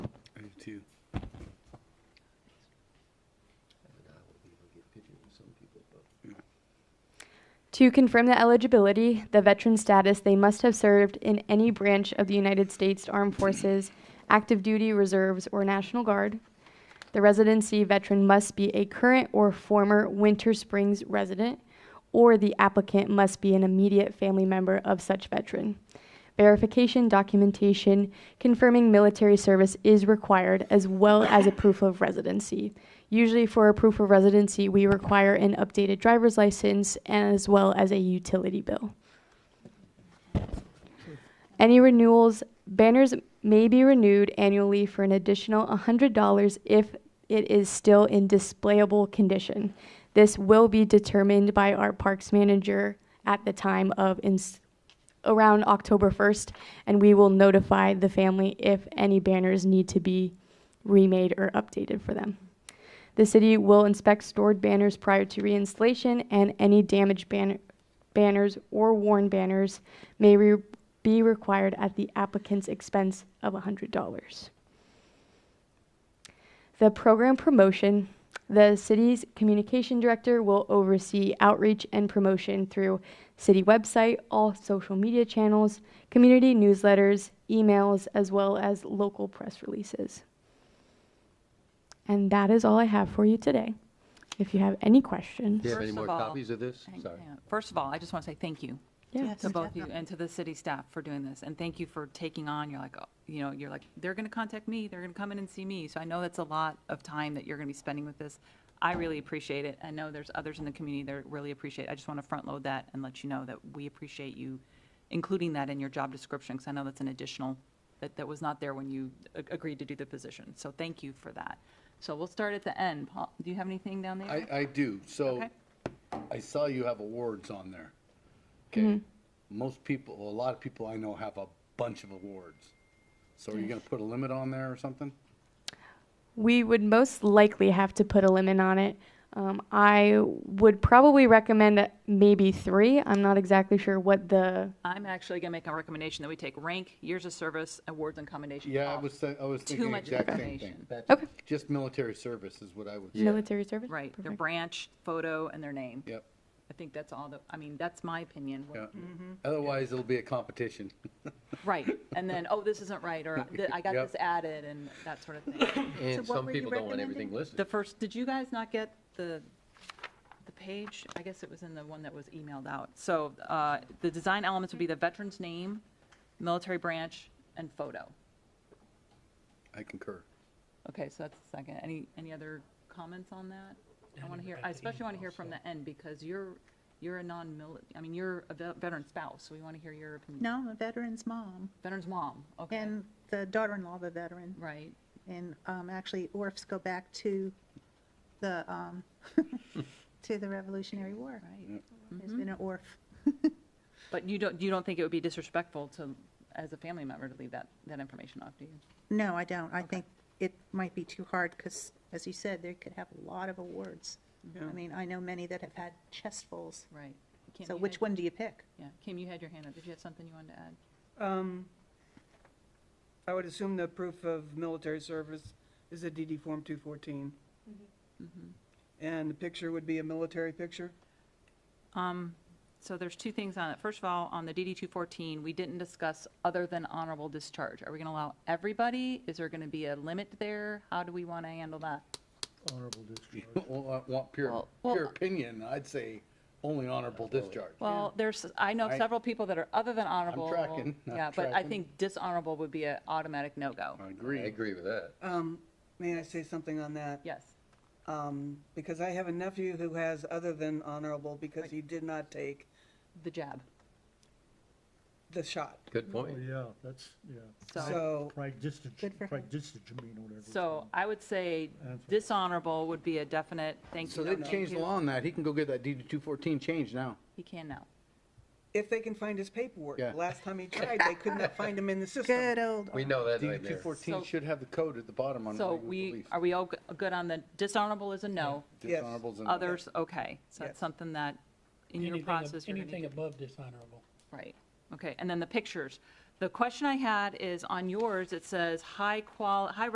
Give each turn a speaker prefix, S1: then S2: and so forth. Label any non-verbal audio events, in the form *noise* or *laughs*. S1: too.
S2: And I will be able to get pictures of some people, but
S3: To confirm the eligibility, the veteran status, they must have served in any branch of the United States Armed Forces, active duty, reserves, or National Guard. The residency veteran must be a current or former Winter Springs resident, or the applicant must be an immediate family member of such veteran. Verification documentation confirming military service is required as well as a proof of residency. Usually, for a proof of residency, we require an updated driver's license as well as a utility bill. Any renewals, banners may be renewed annually for an additional $100 if it is still in displayable condition. This will be determined by our parks manager at the time of ins- around October 1st, and we will notify the family if any banners need to be remade or updated for them. The city will inspect stored banners prior to reinstallation, and any damaged banner, banners or worn banners may re- be required at the applicant's expense of $100. The program promotion. The city's communication director will oversee outreach and promotion through city website, all social media channels, community newsletters, emails, as well as local press releases. And that is all I have for you today. If you have any questions,
S2: do you have any
S4: First
S2: more
S4: of all-
S2: copies of this?
S4: Hang-
S2: Sorry.
S4: hang on. First of all, I just want to say thank you
S3: yeah.
S4: to both you and to the city staff for doing this. And thank you for taking on, you're like, oh, you know, you're like, they're going to contact me, they're going to come in and see me. So I know that's a lot of time that you're going to be spending with this. I really appreciate it. I know there's others in the community that really appreciate it. I just want to front load that and let you know that we appreciate you including that in your job description, because I know that's an additional, that, that was not there when you a- agreed to do the position. So thank you for that. So we'll start at the end. Paul, do you have anything down there?
S1: I, I do. So
S4: Okay.
S1: I saw you have awards on there. Okay. Most people, a lot of people I know have a bunch of awards. So are you going to put a limit on there or something?
S3: We would most likely have to put a limit on it. Um, I would probably recommend maybe three. I'm not exactly sure what the
S4: I'm actually going to make a recommendation that we take rank, years of service, awards, and commendations.
S1: Yeah, I
S4: off.
S1: was, thi- I was
S4: Too
S1: thinking the
S4: much
S1: exact same
S4: information.
S1: thing.
S3: Okay.
S1: Just military service is what I would,
S3: military service.
S4: Right, their
S3: Perfect.
S4: branch, photo, and their name.
S1: yep,
S4: I think that's all, the- I mean, that's my opinion.
S1: yeah. Otherwise, it'll be a competition.
S4: *laughs* Right, and then, oh, this isn't right, or "Th- I
S1: *laughs*
S4: got
S1: Yep.
S4: this added, and that sort of
S1: *laughs*
S4: thing.
S2: And
S5: what
S2: some
S5: were you
S2: people don't want everything
S5: recommending?
S4: The
S2: listed.
S4: first, did you guys not get the, the page? I guess it was in the one that was emailed out. So uh, the design elements would be the veteran's name, military branch, and photo.
S1: I concur. *laughs*
S4: Okay, so that's the second. Any, any other comments on that? I want to hear, I especially want to hear from the end because you're, you're a non-mili, I mean, you're a ve- veteran spouse, so we want to hear your opinion.
S5: No, I'm a veteran's mom
S4: Veteran's mom, okay,
S5: and the daughter-in-law of a veteran.
S4: right.
S5: And um, actually, orfs go back to the, um, *laughs* to the Revolutionary War.
S4: Right.
S5: There's been an orf.
S4: But you don't, you don't think it would be disrespectful to, as a family member, to leave that, that information off, do you?
S5: No, I don't. I think it might be too hard because, as you said, they could have a lot of awards. I mean, I know many that have had chestfuls.
S4: Right. Kim,
S5: So
S4: you
S5: which
S4: had-
S5: one do you pick?
S4: Yeah, Kim, you had your hand up. Did you have something you wanted to add?
S6: Um, I would assume the proof of military service is a DD Form 214. And the picture would be a military picture?
S4: Um, so there's two things on it. First of all, on the DD two fourteen, we didn't discuss other than honorable discharge. Are we gonna allow everybody? Is there gonna be a limit there? How do we wanna handle that?
S2: Honorable discharge.
S1: Well, I want pure,
S4: Well-
S1: pure
S4: Well-
S1: opinion, I'd say only honorable discharge.
S4: Well, there's, I know
S1: I-
S4: several people that are other than honorable.
S1: tracking, I'm
S4: Yeah, but I
S1: tracking.
S4: think dishonorable would be an automatic no-go.
S1: I
S2: I
S1: agree.
S2: agree with that.
S6: Um, May I say something on that?
S4: Yes,
S6: Um, Because I have a nephew who has other than honorable because he did not take
S4: the jab.
S6: the shot.
S2: Good
S7: Oh,
S2: point.
S7: Yeah, that's, yeah.
S4: So,
S6: So,
S7: Pragmatic,
S5: Good for him.
S7: pragmatic, I mean, or whatever. it's
S4: so I would say
S7: That's-
S4: dishonorable would be a definite thank you.
S1: So
S4: no,
S1: they
S4: thank
S1: changed the
S4: you.
S1: law on that. He can go get that DD two fourteen changed now.
S4: He can now.
S6: if they can find his paperwork,
S1: Yeah.
S6: last time he tried, they could not find him in the system.
S5: Good old
S2: We know that
S1: DD two
S2: nightmare.
S1: fourteen
S4: So-
S1: should have the code at the bottom on
S4: So
S1: why it was
S4: we,
S1: released.
S4: are we all g- good on the dishonorable is a no?
S6: Yes.
S1: Dishonorables and-
S4: Others, okay, so that's
S6: Yes.
S4: something that, in your
S8: Anything ab-
S4: process, you're gonna
S8: Anything
S4: do.
S8: above dishonorable.
S4: Right, okay, and then the pictures. The question I had is, on yours, it says high qual, high